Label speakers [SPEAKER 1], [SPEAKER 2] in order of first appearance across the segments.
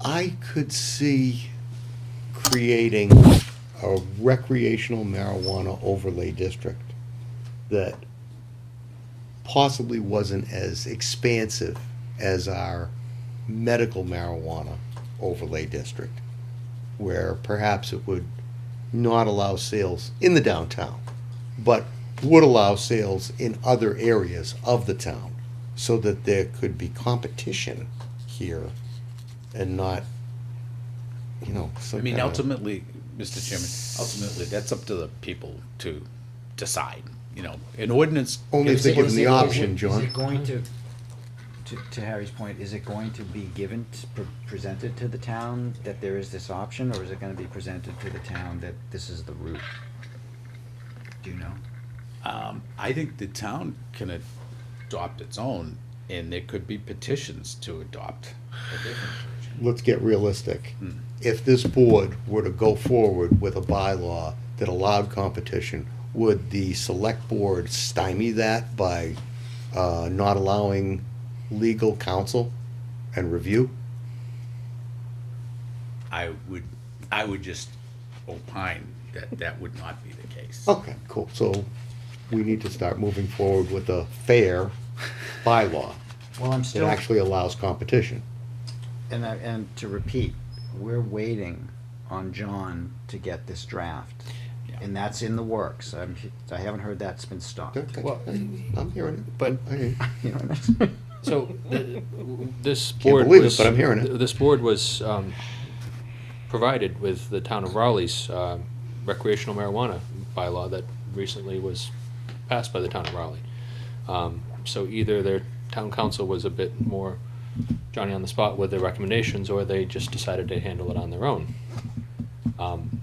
[SPEAKER 1] I could see creating a recreational marijuana overlay district that possibly wasn't as expansive as our medical marijuana overlay district, where perhaps it would not allow sales in the downtown, but would allow sales in other areas of the town, so that there could be competition here and not, you know, some
[SPEAKER 2] I mean,
[SPEAKER 1] kinda-
[SPEAKER 2] ultimately, Mr. Chairman, ultimately, that's up to the people to decide, you know, an ordinance.
[SPEAKER 1] Only if they
[SPEAKER 2] is-
[SPEAKER 1] give them
[SPEAKER 2] is-
[SPEAKER 1] the
[SPEAKER 3] Is it-
[SPEAKER 1] option,
[SPEAKER 3] Is
[SPEAKER 1] John.
[SPEAKER 3] it going to, to, to Harry's point, is it going to be given, t- pre- presented to the town that there is this option, or is it gonna be presented to the town that this is the route? Do you know?
[SPEAKER 2] I think the town can adopt its own, and there could be petitions to adopt. a different version.
[SPEAKER 1] let's get realistic. If this board were to go forward with a bylaw that allowed competition, would the select board stymie that by uh, not allowing legal counsel and review?
[SPEAKER 2] I would, I would just opine that that would not be the case.
[SPEAKER 3] Oh.
[SPEAKER 1] Okay, cool. So we need to start moving forward with a fair bylaw
[SPEAKER 3] Well, I'm
[SPEAKER 1] that
[SPEAKER 3] still,
[SPEAKER 1] actually allows competition.
[SPEAKER 3] and I, and to repeat, we're waiting on John to get this draft.
[SPEAKER 2] Yeah.
[SPEAKER 3] And that's in the works, I'm, I haven't heard that's been stopped.
[SPEAKER 1] Okay,
[SPEAKER 4] Well,
[SPEAKER 1] I'm hearing it.
[SPEAKER 4] but-
[SPEAKER 1] I hear you.
[SPEAKER 3] You know what I mean?
[SPEAKER 4] So, th- this board
[SPEAKER 1] believe it,
[SPEAKER 4] was.
[SPEAKER 1] but I'm hearing it.
[SPEAKER 4] This board was um, provided with the town of Raleigh's um, recreational marijuana bylaw that recently was passed by the town of Raleigh. Um, So either their town council was a bit more Johnny on the spot with their recommendations, or they just decided to handle it on their own. Um,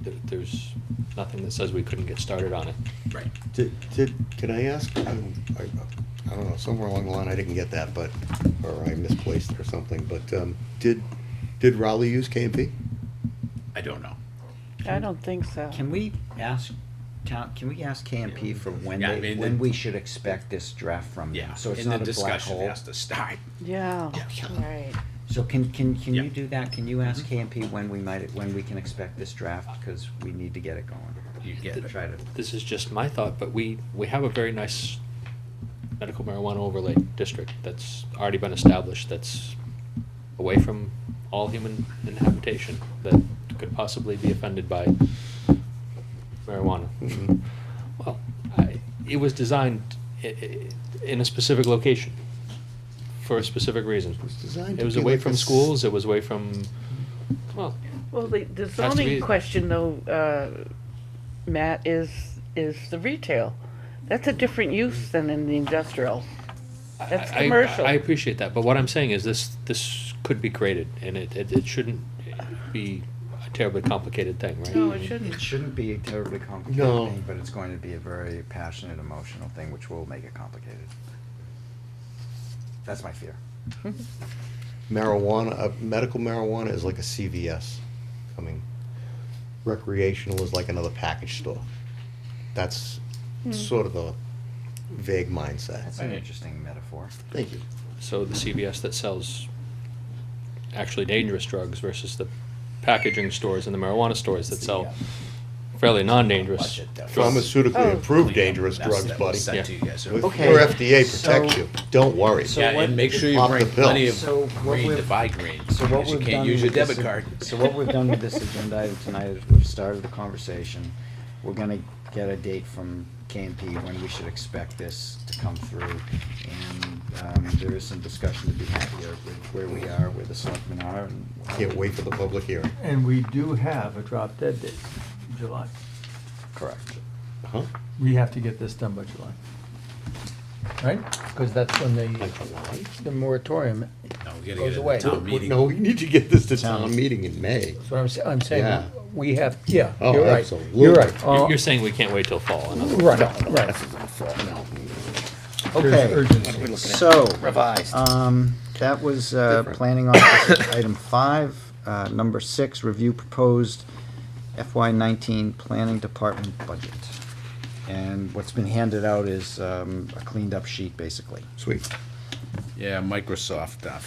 [SPEAKER 4] there- There's nothing that says we couldn't get started on it.
[SPEAKER 2] Right.
[SPEAKER 1] Did, did, can I ask, I, I I don't know, somewhere along the line, I didn't get that, but, or I misplaced it or something, but, um, did, did Raleigh use KMP?
[SPEAKER 2] I don't know.
[SPEAKER 5] I don't think so.
[SPEAKER 3] Can we ask town, can we ask KMP for when
[SPEAKER 2] Yeah, I
[SPEAKER 3] they,
[SPEAKER 2] mean,
[SPEAKER 3] when
[SPEAKER 2] the-
[SPEAKER 3] we should expect this draft from them?
[SPEAKER 2] Yeah,
[SPEAKER 3] So it's
[SPEAKER 2] and the
[SPEAKER 3] not a black
[SPEAKER 2] discussion
[SPEAKER 3] hole.
[SPEAKER 2] has to start.
[SPEAKER 5] Yeah,
[SPEAKER 1] Yeah.
[SPEAKER 5] right.
[SPEAKER 3] So can, can, can
[SPEAKER 2] Yeah. Mm-hmm.
[SPEAKER 3] you do that? Can you ask KMP when we might, when we can expect this draft? Because we need to get it going.
[SPEAKER 2] You get it.
[SPEAKER 3] Try to,
[SPEAKER 4] this is just my thought, but we, we have a very nice medical marijuana overlay district that's already been established, that's away from all human inhabitation that could possibly be offended by marijuana.
[SPEAKER 1] Mm-hmm.
[SPEAKER 4] Well, I, it was designed i- i- in a specific location for a specific reason.
[SPEAKER 1] was designed to
[SPEAKER 4] It was
[SPEAKER 1] be
[SPEAKER 4] away
[SPEAKER 1] like a
[SPEAKER 4] from
[SPEAKER 1] s-
[SPEAKER 4] schools, it was away from, well,
[SPEAKER 5] Well, the,
[SPEAKER 4] to
[SPEAKER 5] the
[SPEAKER 4] be-
[SPEAKER 5] zoning question though, uh, Matt, is, is the retail. That's a different use than in the industrial. That's
[SPEAKER 4] I- I-
[SPEAKER 5] commercial.
[SPEAKER 4] I appreciate that, but what I'm saying is this, this could be created, and it, it, it shouldn't be a terribly complicated thing, right?
[SPEAKER 2] Mm-hmm.
[SPEAKER 5] No, it
[SPEAKER 3] it
[SPEAKER 5] shouldn't.
[SPEAKER 3] shouldn't be a terribly complicated
[SPEAKER 1] No.
[SPEAKER 3] thing, but it's going to be a very passionate, emotional thing, which will make it complicated. That's my fear.
[SPEAKER 1] Marijuana, uh, medical marijuana is like a CVS coming. Recreational is like another package store. That's
[SPEAKER 3] Hmm.
[SPEAKER 1] sort of the vague mindset.
[SPEAKER 3] That's an interesting metaphor.
[SPEAKER 1] Thank you.
[SPEAKER 4] So the CVS that sells actually dangerous drugs versus the packaging stores and the marijuana stores that sell fairly non-dangerous.
[SPEAKER 2] Budget, though.
[SPEAKER 4] drugs.
[SPEAKER 1] Pharmaceutically
[SPEAKER 5] Oh.
[SPEAKER 1] approved dangerous
[SPEAKER 2] That's
[SPEAKER 1] drugs,
[SPEAKER 2] that was
[SPEAKER 1] buddy.
[SPEAKER 2] sent to you guys earlier.
[SPEAKER 1] With-
[SPEAKER 3] Okay.
[SPEAKER 1] Your FDA protects
[SPEAKER 3] So-
[SPEAKER 1] you. Don't worry.
[SPEAKER 3] So
[SPEAKER 2] Yeah,
[SPEAKER 3] what-
[SPEAKER 2] and make sure you
[SPEAKER 1] Off the
[SPEAKER 2] bring plenty
[SPEAKER 1] pill.
[SPEAKER 2] of
[SPEAKER 3] So what
[SPEAKER 2] green to
[SPEAKER 3] we've-
[SPEAKER 2] buy green,
[SPEAKER 3] So what
[SPEAKER 2] because you
[SPEAKER 3] we've
[SPEAKER 2] can't
[SPEAKER 3] done
[SPEAKER 2] use your
[SPEAKER 3] with this
[SPEAKER 2] debit
[SPEAKER 3] ag-
[SPEAKER 2] card.
[SPEAKER 3] So what we've done with this agenda item tonight is we've started the conversation. We're gonna get a date from KMP when we should expect this to come through. And, um, there is some discussion to be had here with where we are, where the selectmen are and.
[SPEAKER 1] Can't wait for the public hearing.
[SPEAKER 6] And we do have a drop dead date, July.
[SPEAKER 3] Correct.
[SPEAKER 1] Huh?
[SPEAKER 6] We have to get this done by July. Right? Because that's when
[SPEAKER 1] Like
[SPEAKER 6] the,
[SPEAKER 1] July?
[SPEAKER 6] the moratorium,
[SPEAKER 2] No, we gotta
[SPEAKER 6] Goes
[SPEAKER 2] get it
[SPEAKER 6] away.
[SPEAKER 2] at the town meeting.
[SPEAKER 1] No, we need to get this to town
[SPEAKER 3] Sounds-
[SPEAKER 1] meeting in May.
[SPEAKER 6] that's what I'm saying, I'm saying,
[SPEAKER 1] Yeah.
[SPEAKER 6] we have, yeah,
[SPEAKER 1] Oh,
[SPEAKER 6] you're right,
[SPEAKER 1] absolutely.
[SPEAKER 6] you're right. Uh,
[SPEAKER 4] You're, you're saying we can't wait till fall, in other words.
[SPEAKER 6] Right, right. There's urgency.
[SPEAKER 3] Okay, so. Revised. Um, that was, uh, planning officer, item five, uh, number six, review proposed FY nineteen planning department budget. And what's been handed out is, um, a cleaned up sheet, basically.
[SPEAKER 1] Sweet.
[SPEAKER 2] Yeah, Microsoft uh,